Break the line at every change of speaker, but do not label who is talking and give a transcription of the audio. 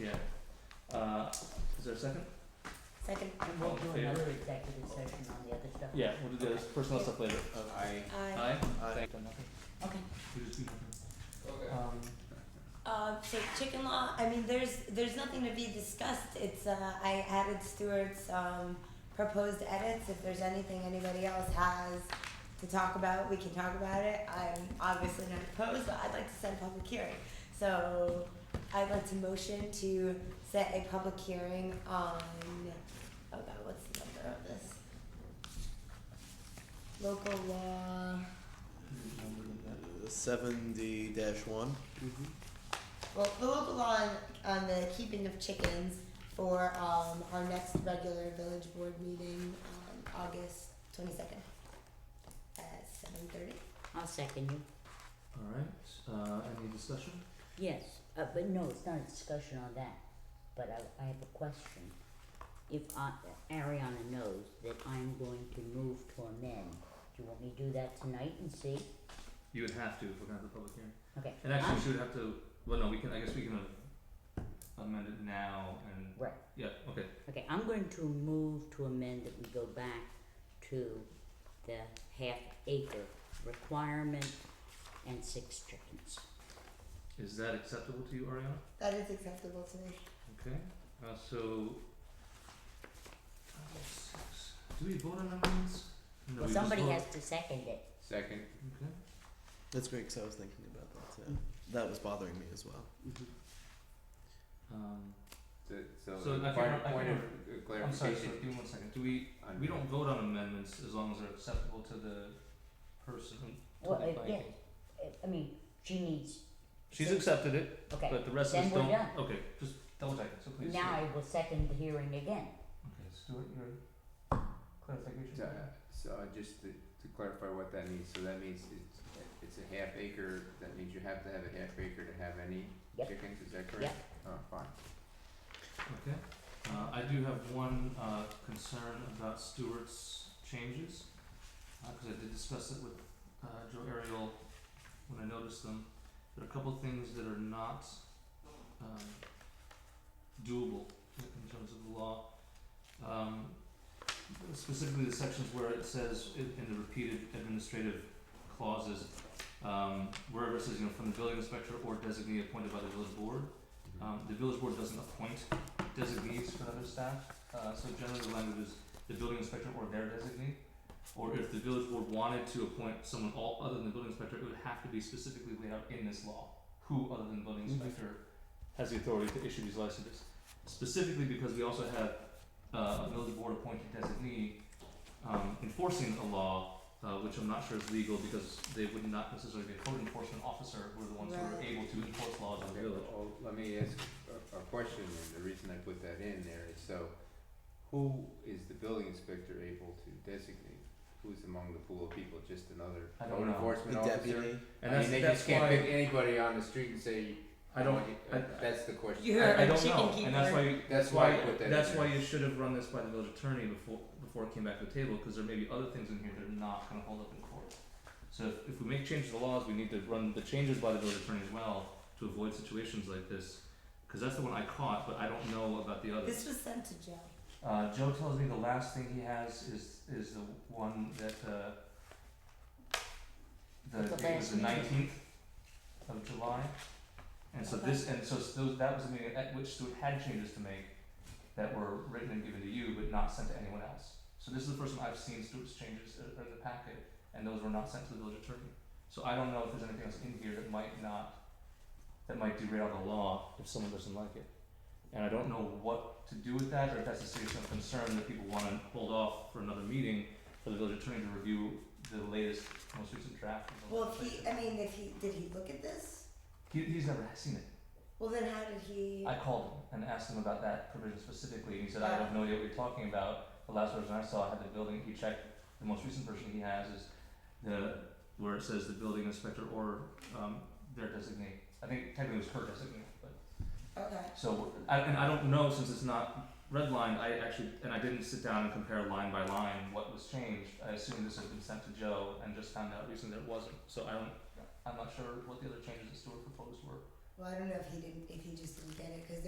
yeah. Uh, is there a second?
Second,
And we'll
All in
do
favor?
another executive session on the other stuff.
Yeah, we'll do the personal stuff later. Uh,
I.
aye.
Aye?
Aye.
Thank- done nothing?
Okay.
We just do nothing.
Okay.
Um,
Uh, so chicken law, I mean, there's, there's nothing to be discussed, it's, uh, I added Stewart's, um, proposed edits, if there's anything anybody else has to talk about, we can talk about it, I'm obviously not opposed, but I'd like to set a public hearing. So, I'd like to motion to set a public hearing on, oh god, what's the number of this? Local law,
number like that.
Seventy dash one.
mm-hmm.
Well, the local law on, on the keeping of chickens for um, our next regular village board meeting on August twenty second at seven thirty.
I'll second you.
All right, uh, any discussion?
Yes, uh, but no, it's not a discussion on that, but I, I have a question. If I, Ariana knows that I'm going to move to amend, do you want me to do that tonight and see?
You would have to if we're gonna have the public hearing.
Okay.
And actually,
I'm-
we should have to, well, no, we can, I guess we can uh, amend it now and,
Right,
yeah, okay.
okay, I'm going to move to amend that we go back to the half acre requirement and six chickens.
Is that acceptable to you, Ariana?
That is acceptable to me.
Okay, uh, so. Five, six. Do we vote on amendments? No, we
Well,
just
somebody
vote-
has to second it.
Second.
Okay,
That's great because I was thinking about that too. That was bothering me as well.
Mm-hmm. um,
So,
So,
so
I
the
can-
point,
I
point
can-
of uh,
I'm sorry,
clarification.
sir, give me one second, do we,
on-
we don't vote on amendments as long as they're acceptable to the person, to the
Well,
planning.
uh, yeah, uh, I mean, she needs,
She's accepted it,
okay,
but the rest of
then
us
we're
don't,
done.
okay, just double check, so please.
now
Stuart.
I will second the hearing again.
Okay, Stuart, your clarification?
So, uh, so I just to, to clarify what that means, so that means it's, it's a half acre, that means you have to have a half acre to have any
Yep.
chickens, is that correct? Oh, fine.
Okay, uh, I do have one, uh, concern about Stewart's changes, uh, cause I did discuss it with, uh, Joe Ariel when I noticed them. There are a couple things that are not, um, doable in, in terms of the law. Um, specifically the sections where it says in, in the repeated administrative clauses, um, wherever it says, you know, from the building inspector or designee appointed by the village board, um, the village board doesn't appoint designees for other staff, uh, so generally the language is the building inspector or their designee. Or if the village board wanted to appoint someone all other than the building inspector, it would have to be specifically laid out in this law, who other than the building
Mhm.
inspector has the authority to issue these licenses. Specifically because we also have, uh, a village board appointed designee, um, enforcing a law, uh, which I'm not sure is legal because they would not necessarily be a code enforcement officer, who are the ones who are
Right.
able to enforce laws in the
Okay,
village.
well, oh, let me ask a, a question, and the reason I put that in there is so, who is the building inspector able to designate? Who's among the pool of people, just another
I don't
code
know.
enforcement
the
officer?
deputy.
And
I
that's,
mean, they
that's
just can't
why-
pick anybody on the street and say,
I don't-
want you-
I-
that's the question.
You're
I, I
a
don't
chicken
know,
keeper.
and that's why you,
That's why I put that in
that's
there.
why you should have run this by the village attorney before before it came back to the table because there may be other things in here that are not going to hold up in court. So if, if we make changes to the laws, we need to run the changes by the village attorney as well to avoid situations like this because that's the one I caught, but I don't know about the others.
This was sent to Joe.
Uh, Joe tells me the last thing he has is is the one that uh, the
The
date
last
was the
meeting.
nineteenth of July, and so
Okay.
this and so s- those that was the meeting at which Stuart had changes to make that were written and given to you but not sent to anyone else. So this is the first time I've seen Stuart's changes in, in the packet, and those were not sent to the village attorney. So I don't know if there's anything else in here that might not that might derail the law if someone doesn't like it. And I don't know what to do with that, or if that's a serious enough concern that people wanna hold off for another meeting for the village attorney to review the latest, most recent draft. of the
Well, if he,
legislation.
I mean, if he, did he look at this?
He, he's never seen it.
Well, then how did he?
I called him and asked him about that provision specifically, and he said, I
Yeah.
have no idea what you're talking about. The last version I saw had the building, he checked, the most recent version he has is the, where it says the building inspector or, um, their designate. I think technically it was her designate, but.
Okay.
So, I, and I don't know since it's not redlined. I actually, and I didn't sit down and compare line by line what was changed. I assumed this had been sent to Joe and just found out recently that it wasn't. So I don't, I'm not sure what the other changes that Stuart proposed were.
Well, I don't know if he didn't, if he just didn't get it because there